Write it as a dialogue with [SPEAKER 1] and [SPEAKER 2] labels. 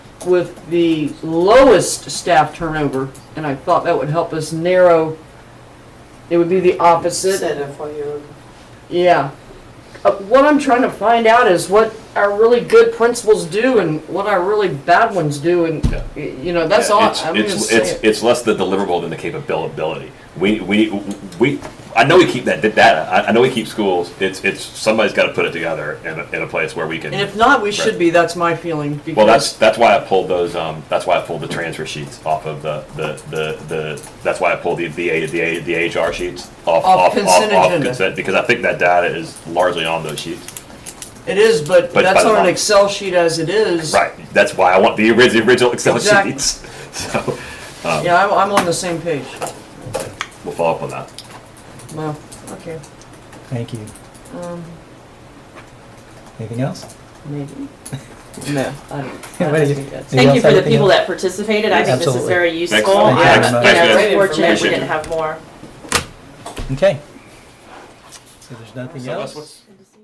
[SPEAKER 1] with the lowest staff turnover, and I thought that would help us narrow. It would be the opposite.
[SPEAKER 2] Instead of what you're,
[SPEAKER 1] Yeah. Uh, what I'm trying to find out is what our really good principals do and what our really bad ones do, and
[SPEAKER 3] Yeah.
[SPEAKER 1] y- you know that's all.
[SPEAKER 3] It's,
[SPEAKER 1] I'm just
[SPEAKER 3] it's,
[SPEAKER 1] saying.
[SPEAKER 3] it's, it's less the deliverable than the capability. We, we, we, I know we keep that data, I, I know we keep schools, it's, it's, somebody's gotta put it together in a, in a place where we can.
[SPEAKER 1] and if not, we should be. That's my feeling. Because
[SPEAKER 3] Well, that's, that's why I pulled those, um, that's why I pulled the transfer sheets off of the, the, the, the, that's why I pulled the, the, A- the, A- the HR sheets off, off, off,
[SPEAKER 1] consent
[SPEAKER 3] off
[SPEAKER 1] agenda.
[SPEAKER 3] consent, because I think that data is largely on those sheets.
[SPEAKER 1] it is, but,
[SPEAKER 3] But
[SPEAKER 1] that's
[SPEAKER 3] by the
[SPEAKER 1] on an
[SPEAKER 3] law.
[SPEAKER 1] Excel sheet as it is.
[SPEAKER 3] Right, that's why I want the orig- the original Excel
[SPEAKER 1] Exactly.
[SPEAKER 3] sheets, so,
[SPEAKER 1] Yeah, I'm, I'm on the same page.
[SPEAKER 3] we'll follow up on that.
[SPEAKER 1] Well, okay,
[SPEAKER 4] Thank you.
[SPEAKER 5] Um,
[SPEAKER 4] Anything else?
[SPEAKER 1] maybe. No, I don't. I
[SPEAKER 4] What do
[SPEAKER 1] don't
[SPEAKER 4] you-
[SPEAKER 1] think that's-
[SPEAKER 5] Thank
[SPEAKER 4] Anything
[SPEAKER 5] you
[SPEAKER 4] else,
[SPEAKER 5] for the
[SPEAKER 4] anything
[SPEAKER 5] people
[SPEAKER 4] else?
[SPEAKER 5] that participated. I think this is
[SPEAKER 4] Absolutely.
[SPEAKER 5] very useful.
[SPEAKER 3] Excellent.
[SPEAKER 5] I'm,
[SPEAKER 4] Thanks.
[SPEAKER 5] you know,
[SPEAKER 4] Thanks,
[SPEAKER 3] guys.
[SPEAKER 5] very fortunate we
[SPEAKER 3] Appreciate
[SPEAKER 5] didn't
[SPEAKER 3] you.
[SPEAKER 5] have more.
[SPEAKER 4] Okay. So there's nothing
[SPEAKER 3] So
[SPEAKER 4] else?
[SPEAKER 3] that's what's-